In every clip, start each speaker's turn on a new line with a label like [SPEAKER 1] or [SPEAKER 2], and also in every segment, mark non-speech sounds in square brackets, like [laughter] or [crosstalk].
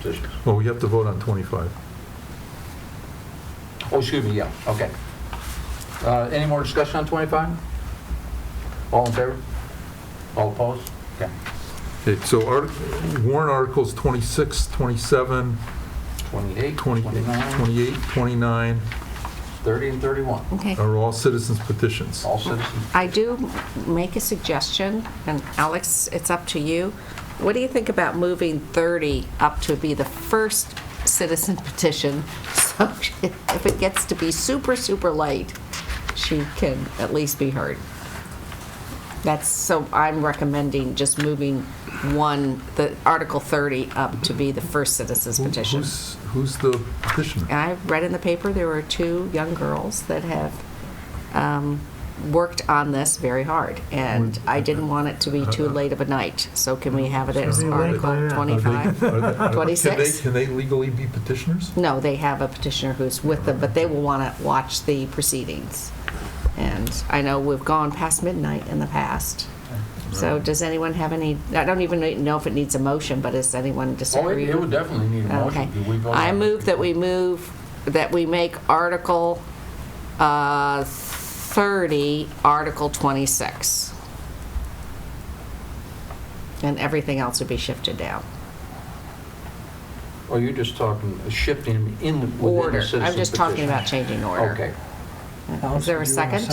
[SPEAKER 1] positions.
[SPEAKER 2] Well, we have to vote on 25.
[SPEAKER 1] Oh, excuse me, yeah, okay. Uh, Any more discussion on 25? All in favor? All opposed? Okay.
[SPEAKER 2] Okay, so art- warrant articles 26, 27,
[SPEAKER 1] 28,
[SPEAKER 2] 20
[SPEAKER 1] 29,
[SPEAKER 2] 28, 29
[SPEAKER 1] 30, and 31.
[SPEAKER 3] Okay.
[SPEAKER 2] are all citizens petitions.
[SPEAKER 1] All citizens.
[SPEAKER 3] I do make a suggestion, and Alex, it's up to you. What do you think about moving 30 up to be the first citizen petition? [laughs] So if it gets to be super, super late, she can at least be heard. That's, so I'm recommending just moving one, the Article 30 up to be the first citizen's
[SPEAKER 2] Who-
[SPEAKER 3] petition.
[SPEAKER 2] Who's, who's the petitioner?
[SPEAKER 3] And I read in the paper, there were two young girls that have um, worked on this very hard, and I didn't want it to be too late of a night, Uh-huh. so can we have it as
[SPEAKER 2] Should be late by
[SPEAKER 3] Article
[SPEAKER 4] now.
[SPEAKER 2] Are they- are
[SPEAKER 3] 25?
[SPEAKER 2] they- are they- can they-
[SPEAKER 3] 26?
[SPEAKER 2] Can they legally be petitioners?
[SPEAKER 3] No, they [laughs] have a petitioner who's with them, but they will want to watch the proceedings. And I know we've gone past midnight in the past, so does anyone have any, I don't even know if it needs a motion, but is anyone
[SPEAKER 1] Oh,
[SPEAKER 3] disagreeing?
[SPEAKER 1] it it would definitely need a
[SPEAKER 3] Okay.
[SPEAKER 1] motion. Do we vote
[SPEAKER 3] I
[SPEAKER 1] on it?
[SPEAKER 3] move that we move, that we make Article uh, 30, Article 26. And everything else would be shifted down.
[SPEAKER 1] Or Oh, you're just talking, shifting in within the
[SPEAKER 3] Order.
[SPEAKER 1] citizen
[SPEAKER 3] I'm just talking
[SPEAKER 1] petition.
[SPEAKER 3] about changing order.
[SPEAKER 1] Okay,
[SPEAKER 3] Is there a second?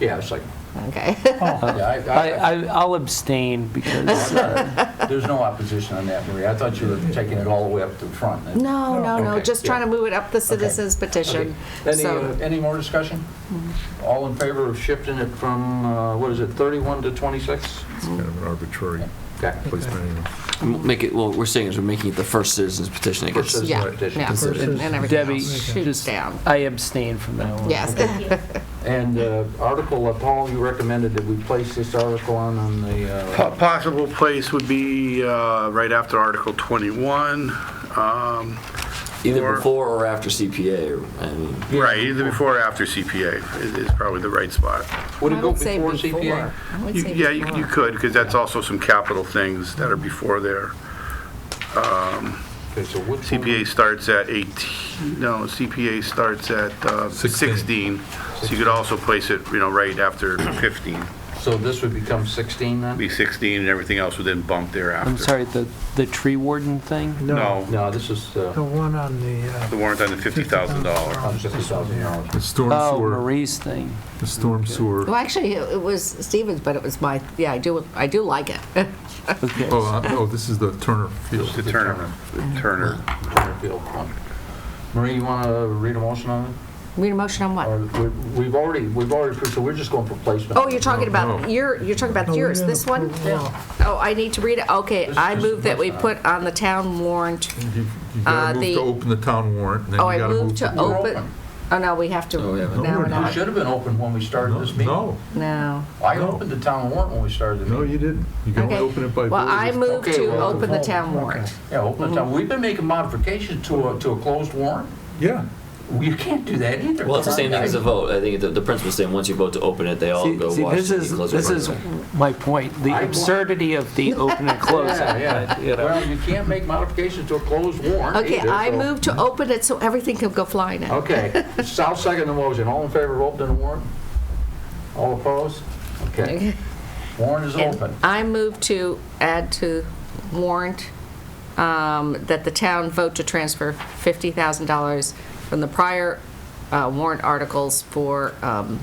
[SPEAKER 1] yeah, it's like,
[SPEAKER 3] Okay.
[SPEAKER 1] yeah, I-
[SPEAKER 4] I,
[SPEAKER 1] Uh, I-
[SPEAKER 4] I, I'll abstain
[SPEAKER 1] [laughs]
[SPEAKER 4] because, uh,
[SPEAKER 1] There's no opposition on that, Maria. I thought you were taking it all the way up to the front.
[SPEAKER 3] [laughs] No, no, no,
[SPEAKER 1] Okay,
[SPEAKER 3] just
[SPEAKER 1] yeah.
[SPEAKER 3] trying to move it up the
[SPEAKER 1] Okay.
[SPEAKER 3] citizens
[SPEAKER 1] Okay.
[SPEAKER 3] petition.
[SPEAKER 1] Any,
[SPEAKER 3] So-
[SPEAKER 1] uh, any more discussion? All in favor of shifting it from, uh, what is it, 31 to 26?
[SPEAKER 2] It's kind of an arbitrary
[SPEAKER 1] Okay.
[SPEAKER 2] placement anyway.
[SPEAKER 5] Make it, well, we're saying is we're making it the first citizen's petition, I
[SPEAKER 1] First
[SPEAKER 5] guess.
[SPEAKER 1] citizen
[SPEAKER 3] Yeah,
[SPEAKER 1] petition.
[SPEAKER 3] yeah.
[SPEAKER 4] Versus-
[SPEAKER 3] And everything
[SPEAKER 4] Debbie,
[SPEAKER 3] else
[SPEAKER 4] okay.
[SPEAKER 3] shoots
[SPEAKER 4] just-
[SPEAKER 3] down.
[SPEAKER 4] I abstain from that one.
[SPEAKER 3] Yes.
[SPEAKER 1] And uh, article, uh, Paul, you recommended that we place this article on, on the,
[SPEAKER 6] Po-
[SPEAKER 1] uh,
[SPEAKER 6] Possible place would be uh, right after Article 21, um,
[SPEAKER 5] Either
[SPEAKER 6] Or-
[SPEAKER 5] before or after CPA, or, I mean,
[SPEAKER 6] right, either before or after CPA is- is probably the right spot.
[SPEAKER 1] would it
[SPEAKER 3] [laughs] I
[SPEAKER 1] go
[SPEAKER 3] would say
[SPEAKER 1] before CPA?
[SPEAKER 3] I would
[SPEAKER 6] You-
[SPEAKER 3] say
[SPEAKER 6] Yeah, you you
[SPEAKER 3] before.
[SPEAKER 6] could, because that's also some capital things that are before there.
[SPEAKER 1] Okay, so which one?
[SPEAKER 6] CPA starts at 18, no, CPA starts at uh,
[SPEAKER 2] Sixteen.
[SPEAKER 6] 16, so you could also place it, you know, right after 15,
[SPEAKER 1] So this would become 16 then?
[SPEAKER 6] be 16, and everything else would then bump thereafter.
[SPEAKER 4] I'm sorry, the, the tree warden thing?
[SPEAKER 6] No,
[SPEAKER 1] No, this is,
[SPEAKER 7] The
[SPEAKER 1] uh,
[SPEAKER 7] one on the, uh,
[SPEAKER 6] the warrant on the $50,000.
[SPEAKER 1] on $50,000.
[SPEAKER 2] The storm
[SPEAKER 4] Oh,
[SPEAKER 2] sewer,
[SPEAKER 4] Marie's thing.
[SPEAKER 2] the storm
[SPEAKER 3] Well,
[SPEAKER 2] sewer.
[SPEAKER 3] actually, it it was Stevens, but it was my, yeah, I do, I do like it. [laughs]
[SPEAKER 4] Okay.
[SPEAKER 2] Oh, uh, oh, this is the Turner Field.
[SPEAKER 6] The Turner, the Turner.
[SPEAKER 1] Field one. Marie, you want to read a motion on it?
[SPEAKER 3] Read a motion on
[SPEAKER 1] Or
[SPEAKER 3] what?
[SPEAKER 1] we- We've already, we've already approved, so we're just going for placement.
[SPEAKER 3] Oh, you're talking
[SPEAKER 2] No.
[SPEAKER 3] about, your. you're talking about
[SPEAKER 7] we
[SPEAKER 3] yours,
[SPEAKER 7] didn't
[SPEAKER 3] this one?
[SPEAKER 7] approve it all.
[SPEAKER 3] Oh, I need to read it, okay,
[SPEAKER 1] This is
[SPEAKER 3] I
[SPEAKER 1] just
[SPEAKER 3] move
[SPEAKER 1] the
[SPEAKER 3] that we
[SPEAKER 1] first
[SPEAKER 3] put on the town warrant,
[SPEAKER 2] You you
[SPEAKER 3] Uh,
[SPEAKER 2] gotta move
[SPEAKER 3] the-
[SPEAKER 2] to open the town warrant, and then
[SPEAKER 3] oh,
[SPEAKER 2] you
[SPEAKER 3] I
[SPEAKER 2] gotta
[SPEAKER 3] move
[SPEAKER 2] move.
[SPEAKER 3] to
[SPEAKER 1] We're
[SPEAKER 3] open,
[SPEAKER 1] open.
[SPEAKER 3] oh, no, we have to,
[SPEAKER 5] Oh, yeah,
[SPEAKER 3] no,
[SPEAKER 5] but-
[SPEAKER 2] No,
[SPEAKER 3] we're
[SPEAKER 2] we're
[SPEAKER 1] We
[SPEAKER 3] not,
[SPEAKER 1] should have been open when we started this meeting.
[SPEAKER 2] No,
[SPEAKER 3] no.
[SPEAKER 1] I
[SPEAKER 2] No.
[SPEAKER 1] opened the town warrant when we started the meeting.
[SPEAKER 2] no, you didn't. You can only
[SPEAKER 3] Okay.
[SPEAKER 2] open it by.
[SPEAKER 3] Well,
[SPEAKER 2] vote.
[SPEAKER 3] I move
[SPEAKER 1] Okay,
[SPEAKER 3] to
[SPEAKER 1] well,
[SPEAKER 3] open the
[SPEAKER 1] vote.
[SPEAKER 3] town warrant.
[SPEAKER 1] Yeah, open the town,
[SPEAKER 3] Mm-hmm.
[SPEAKER 1] we've been making modifications to a, to a closed warrant.
[SPEAKER 2] Yeah.
[SPEAKER 1] You can't do that either.
[SPEAKER 5] well, it's
[SPEAKER 1] Come
[SPEAKER 5] the
[SPEAKER 1] on,
[SPEAKER 5] same thing as a
[SPEAKER 1] guys.
[SPEAKER 5] vote. I think the, the principal's saying, once you vote to open it, they all
[SPEAKER 4] See,
[SPEAKER 5] Oh, go
[SPEAKER 4] see,
[SPEAKER 5] watch.
[SPEAKER 4] this
[SPEAKER 5] the
[SPEAKER 4] is,
[SPEAKER 5] closing
[SPEAKER 4] this is
[SPEAKER 5] argument.
[SPEAKER 4] my point, the
[SPEAKER 1] I-
[SPEAKER 4] absurdity of the open and close.
[SPEAKER 1] Yeah,
[SPEAKER 5] [laughs]
[SPEAKER 1] yeah.
[SPEAKER 4] you know.
[SPEAKER 1] Well, you can't make modifications to a closed warrant
[SPEAKER 3] Okay,
[SPEAKER 1] either,
[SPEAKER 3] I
[SPEAKER 1] so-
[SPEAKER 3] move to open it so everything can go flying in. [laughs]
[SPEAKER 1] Okay, so I'll second the motion. All in favor of opening the warrant? All opposed? Okay. Warrant is
[SPEAKER 3] And
[SPEAKER 1] open.
[SPEAKER 3] I move to add to warrant um, that the town vote to transfer $50,000 from the prior uh, warrant articles for um,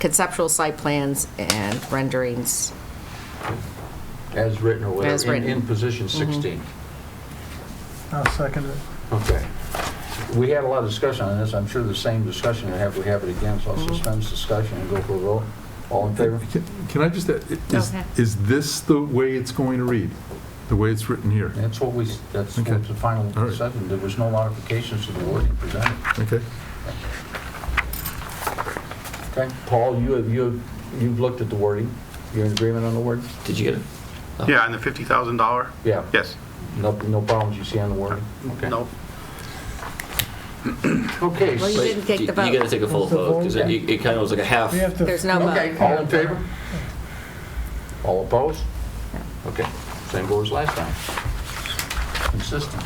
[SPEAKER 3] conceptual site plans and renderings.
[SPEAKER 1] As written or whatever.
[SPEAKER 3] As
[SPEAKER 1] in-
[SPEAKER 3] written. Mm-hmm.
[SPEAKER 1] In position 16.
[SPEAKER 7] I'll second it.
[SPEAKER 1] Okay. We had a lot of discussion on this. I'm sure the same discussion we have, we have it again, so I'll
[SPEAKER 3] Mm-hmm.
[SPEAKER 1] suspend this discussion and go for a vote. All in favor?
[SPEAKER 2] Can- Can I just, add, i- is,
[SPEAKER 3] Okay.
[SPEAKER 2] is this the way it's going to read? The way it's written here?
[SPEAKER 1] That's what we, that's
[SPEAKER 2] Okay.
[SPEAKER 1] what the final
[SPEAKER 2] All right.
[SPEAKER 1] decision, there was no modifications to the wording presented.
[SPEAKER 2] Okay?
[SPEAKER 1] Okay, Paul, you have, you have, you've looked at the wording, you're in agreement on the word?
[SPEAKER 5] Did you get it?
[SPEAKER 4] Uh-huh.
[SPEAKER 6] Yeah, and the $50,000?
[SPEAKER 1] Yeah.
[SPEAKER 6] Yes.
[SPEAKER 1] No, no problems you see on the wording? Okay.
[SPEAKER 6] Nope.
[SPEAKER 1] Okay,
[SPEAKER 3] Well, you
[SPEAKER 1] so-
[SPEAKER 3] didn't take
[SPEAKER 5] You-
[SPEAKER 3] the vote.
[SPEAKER 5] You gotta take a full
[SPEAKER 7] What's the
[SPEAKER 5] vote, because it,
[SPEAKER 3] vote?
[SPEAKER 5] it kind of was like a half.
[SPEAKER 7] We have to.
[SPEAKER 3] There's no
[SPEAKER 1] okay,
[SPEAKER 3] vote.
[SPEAKER 1] all in favor? All opposed? Okay, same board as last time. Consistent.